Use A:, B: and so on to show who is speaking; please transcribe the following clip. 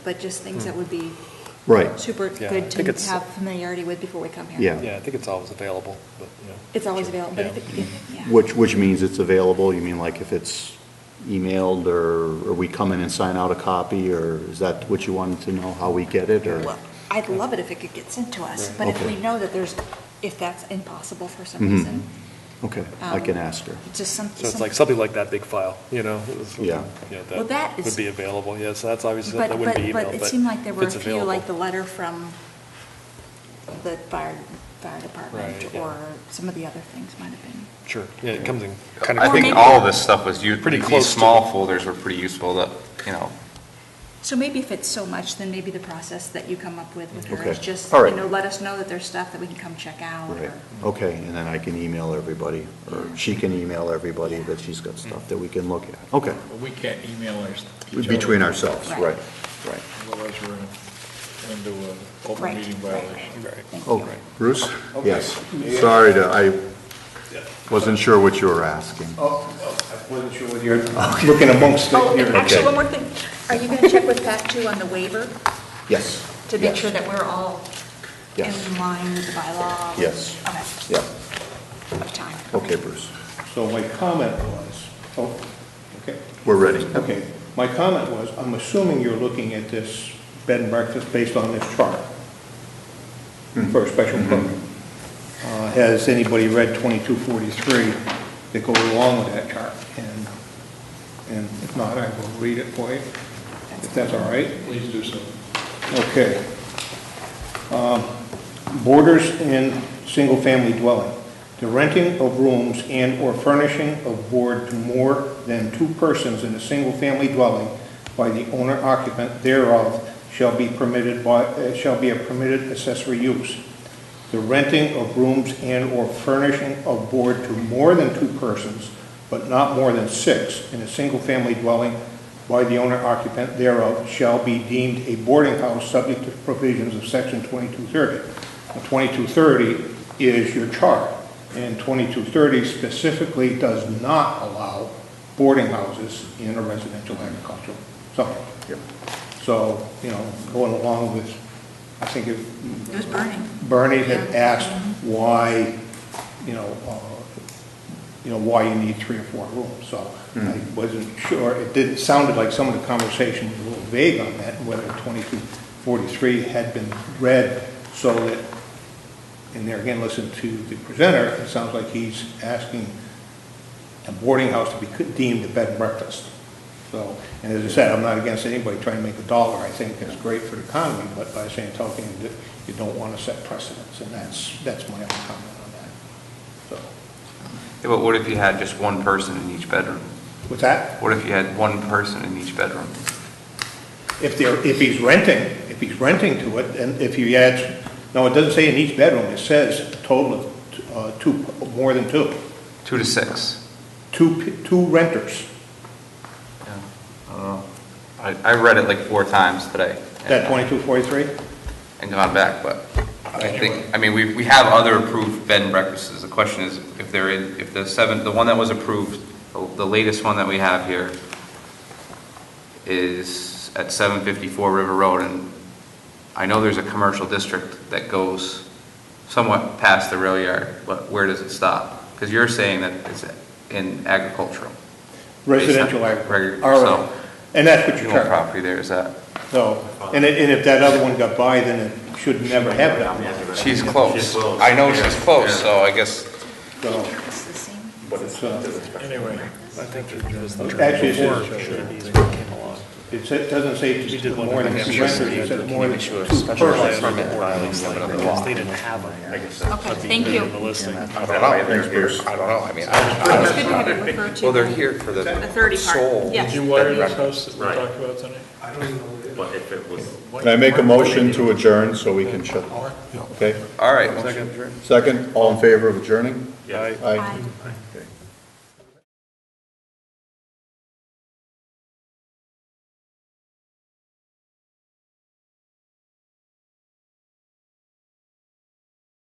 A: but just things that would be
B: Right,
A: super
C: Hmm. Yeah, I
A: good
C: think
A: to
C: it's-
A: have familiarity with before we come here.
B: Yeah.
C: Yeah, I think it's always available, but, you know.
A: It's always available, but I
C: Yeah.
A: think, yeah.
B: which, which means it's available, you mean like if it's emailed, or, or we come in and sign out a copy, or is that what you wanted to know, how we get it, or?
A: Well, I'd love it if it could get sent to us,
C: Right.
A: but if
B: Okay.
A: we know that there's, if that's impossible for some
B: Mhm.
A: reason,
B: Okay, I
A: um,
B: can ask her.
A: just some.
C: Mm-hmm. So it's
A: some-
C: like something like that big file, you know? it was-
B: Yeah.
C: you know,
A: Well, that is-
C: Would be available, yes, that's obviously,
A: But,
C: that
A: but,
C: wouldn't be emailed,
A: but
C: but.
A: it seemed like there
C: if
A: were a
C: it's
A: few, like the
C: available.
A: letter from the fire, fire
C: Right,
A: department,
C: yeah.
A: or some of the other things might have been.
C: Sure, yeah, it comes in kind of.
D: I think
A: maybe-
D: all of this stuff was, u-
C: Pretty
D: these
C: close to-
D: small folders were pretty useful, that, you know,
A: So maybe if it's so much, then maybe the process that you come up with with her is
B: Okay.
A: just,
B: All
A: you
B: right.
A: know, let us know that there's stuff that we can come check out.
B: Right,
A: or-
B: okay, and then I can email everybody, or she can email everybody that she's got stuff that we can look at, okay.
E: But we can't email ours.
B: Between ourselves,
A: Right.
B: right, right.
E: Otherwise, we're in- into an open
A: Right,
E: meeting
A: right,
E: violation.
A: right. Thank
B: Oh,
A: you.
B: Bruce? Yes, sorry to, I wasn't sure what you were asking.
F: Oh, oh, I wasn't sure whether you're looking amongst
A: Oh, and
F: the...
A: actually, one more thing. Are you going to check with Pat too on the waiver
B: Yes.
A: to make
B: yes,
A: sure that we're all in
B: Yes,
A: line with the bylaw?
B: Yes.
A: Okay,
B: yeah,
A: of time.
B: okay, Bruce,
F: So my comment was, oh, okay,
B: we're ready.
F: okay. My comment was, I'm assuming you're looking at this bed and breakfast based on this chart for a special permit. Uh, Has anybody read 2243 that goes along with that chart? And, and if not, I will read it for you, if that's all right.
E: Please do so.
F: Okay. Um, Borders in single-family dwelling. The renting of rooms and/or furnishing of board to more than two persons in a single-family dwelling by the owner occupant thereof shall be permitted by, uh, shall be a permitted accessory use. The renting of rooms and/or furnishing of board to more than two persons, but not more than six, in a single-family dwelling by the owner occupant thereof shall be deemed a boarding house subject to provisions of section 2230. Now, 2230 is your chart, and 2230 specifically does not allow boarding houses in a residential agricultural zone. So, you know, going along with, I think it...
A: It was burning.
F: Bernie had
A: Yeah.
F: asked why, you know, uh, you know, why you need three or four rooms, so I wasn't sure, it did, it sounded like some of the conversation was a little vague on that, whether 2243 had been read so that, and there again, listen to the presenter, it sounds like he's asking a boarding house to be co- deemed a bed and breakfast. So, and as I said, I'm not against anybody trying to make a dollar, I think it's great for the economy, but by the same token, that you don't want to set precedents, and that's, that's my only comment on that. So,
D: yeah, but what if you had just one person in each bedroom?
F: with that,
D: What if you had one person in each bedroom?
F: if they're, if he's renting, if he's renting to it, and if you add, no, it doesn't say in each bedroom, it says total of uh, two, more than two,
D: Two to six?
F: two, p- two renters.
D: Yeah. I don't know. I, I read it like four times today.
F: Is that 2243?
D: And gone back, but I think, I mean, we, we have other approved bed and breakfasts. The question is if there is, if the seven, the one that was approved, the the latest one that we have here is at 754 River Road, and I know there's a commercial district that goes somewhat past the rail yard, but where does it stop? Because you're saying that it's in agricultural.
F: Residential
D: Based on-
F: agriculture.
D: reg- so-
F: RA. And that's what
D: You
F: your
D: want
F: chart,
D: property there, is that?
F: so, and it- and if that other one got by, then it should never have gotten by.
D: She's close. I know she's close, so I guess
F: So,
A: It's the same.
F: it's, uh,
E: Anyway,
F: actually, it says, it sa- doesn't say just
C: did one
F: more than
C: in
F: two
C: Hampshire,
F: renters, it says more than two persons.
C: They didn't have it.
A: Okay, thank you.
C: The listing.
G: I don't know, they're here, I don't know, I mean, I,
A: It's good to have it referred to.
D: Well, they're here for the
A: The 30 part,
D: soul.
A: yes.
E: did you wire this house that we talked about tonight?
G: but if it was.
B: Can I make a motion to adjourn so we can shut? Okay,
D: All right.
B: second, all in favor of adjourning?
G: Yes.
B: Aye.